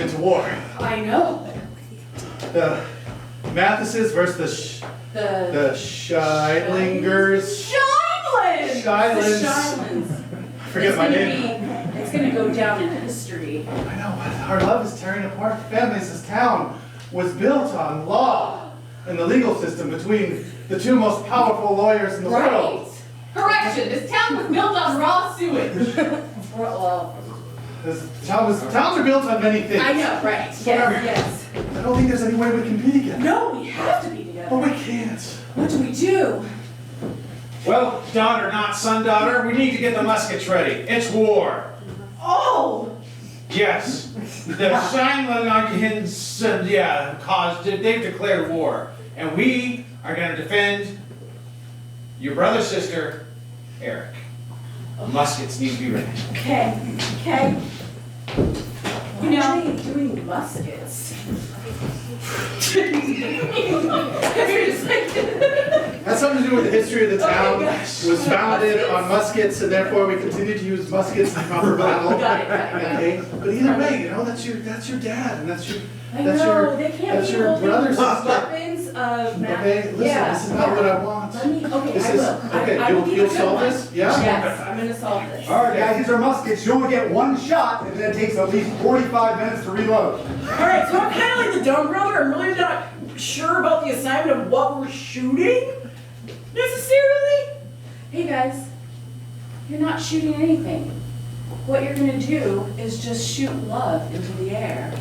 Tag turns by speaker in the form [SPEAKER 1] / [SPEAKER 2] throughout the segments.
[SPEAKER 1] women's war.
[SPEAKER 2] I know.
[SPEAKER 1] The Mathesis versus the, Sh-
[SPEAKER 2] The.
[SPEAKER 1] the Shilingers.
[SPEAKER 2] Shinelands!
[SPEAKER 1] Shinelands.
[SPEAKER 2] The Shinelands.
[SPEAKER 1] I forget
[SPEAKER 2] It's
[SPEAKER 1] my
[SPEAKER 2] gonna
[SPEAKER 1] name.
[SPEAKER 2] be- It's gonna go down in history.
[SPEAKER 1] I know, but our love is tearing apart families. This town was built on law and the legal system between the two most powerful lawyers in the
[SPEAKER 2] Right.
[SPEAKER 1] world.
[SPEAKER 2] Correction, this town was built on raw sewage. Well,
[SPEAKER 1] This town was, towns are built on many things.
[SPEAKER 2] I know, right, yes,
[SPEAKER 1] Whatever.
[SPEAKER 2] yes.
[SPEAKER 1] I don't think there's any way we can be together.
[SPEAKER 2] No, we have to be
[SPEAKER 1] But
[SPEAKER 2] together.
[SPEAKER 1] we can't.
[SPEAKER 2] What do we do?
[SPEAKER 3] Well, daughter, not son, daughter, we need to get the muskets ready. It's war.
[SPEAKER 2] Oh!
[SPEAKER 3] Yes. The Shinelands, yeah, caused it. They've declared war. And we are going to defend your brother, sister, Eric. Muskets need to be ready.
[SPEAKER 2] Okay, okay. You know, doing muskets.
[SPEAKER 1] Has something to do with the history of the
[SPEAKER 2] Oh my
[SPEAKER 1] town.
[SPEAKER 2] gosh.
[SPEAKER 1] It was founded on muskets, and therefore we continue to use muskets in proper battle.
[SPEAKER 2] Got it, got it, got
[SPEAKER 1] Okay,
[SPEAKER 2] it.
[SPEAKER 1] but either way, you know that's your that's your dad, and that's your
[SPEAKER 2] I
[SPEAKER 1] that's
[SPEAKER 2] know,
[SPEAKER 1] your
[SPEAKER 2] they can't
[SPEAKER 1] that's
[SPEAKER 2] be
[SPEAKER 1] your
[SPEAKER 2] holding
[SPEAKER 1] brother's sister.
[SPEAKER 2] weapons of mass.
[SPEAKER 1] okay. Listen,
[SPEAKER 2] yeah.
[SPEAKER 1] this is not what I want.
[SPEAKER 2] Let me, okay,
[SPEAKER 1] This
[SPEAKER 2] I
[SPEAKER 1] is-
[SPEAKER 2] will. I-
[SPEAKER 1] okay,
[SPEAKER 2] I
[SPEAKER 1] you'll-
[SPEAKER 2] will be
[SPEAKER 1] you'll
[SPEAKER 2] the good
[SPEAKER 1] solve
[SPEAKER 2] one.
[SPEAKER 1] this? Yeah?
[SPEAKER 2] Yes, I'm gonna solve this.
[SPEAKER 4] Alright guys, these are muskets, you only get one shot, and then it takes at least forty-five minutes to reload.
[SPEAKER 5] Alright, so I'm kind of like the dumb brother. I'm really not sure about the assignment of what we're shooting necessarily.
[SPEAKER 2] Hey guys, you're not shooting anything. What you're gonna do is just shoot love into the air.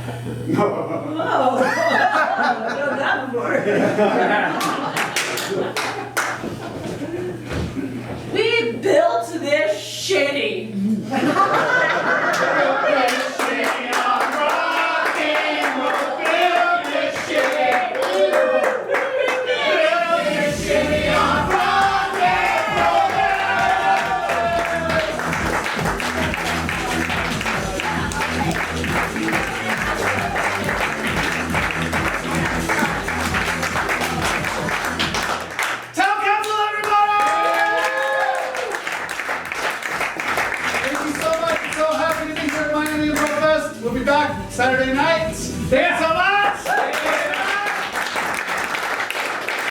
[SPEAKER 5] Oh, I've done that before. We built this shitty.
[SPEAKER 1] Town council, everybody! Thank you so much. I'm so happy to be here at Miami Improv Fest. We'll be back Saturday night. Dance alive!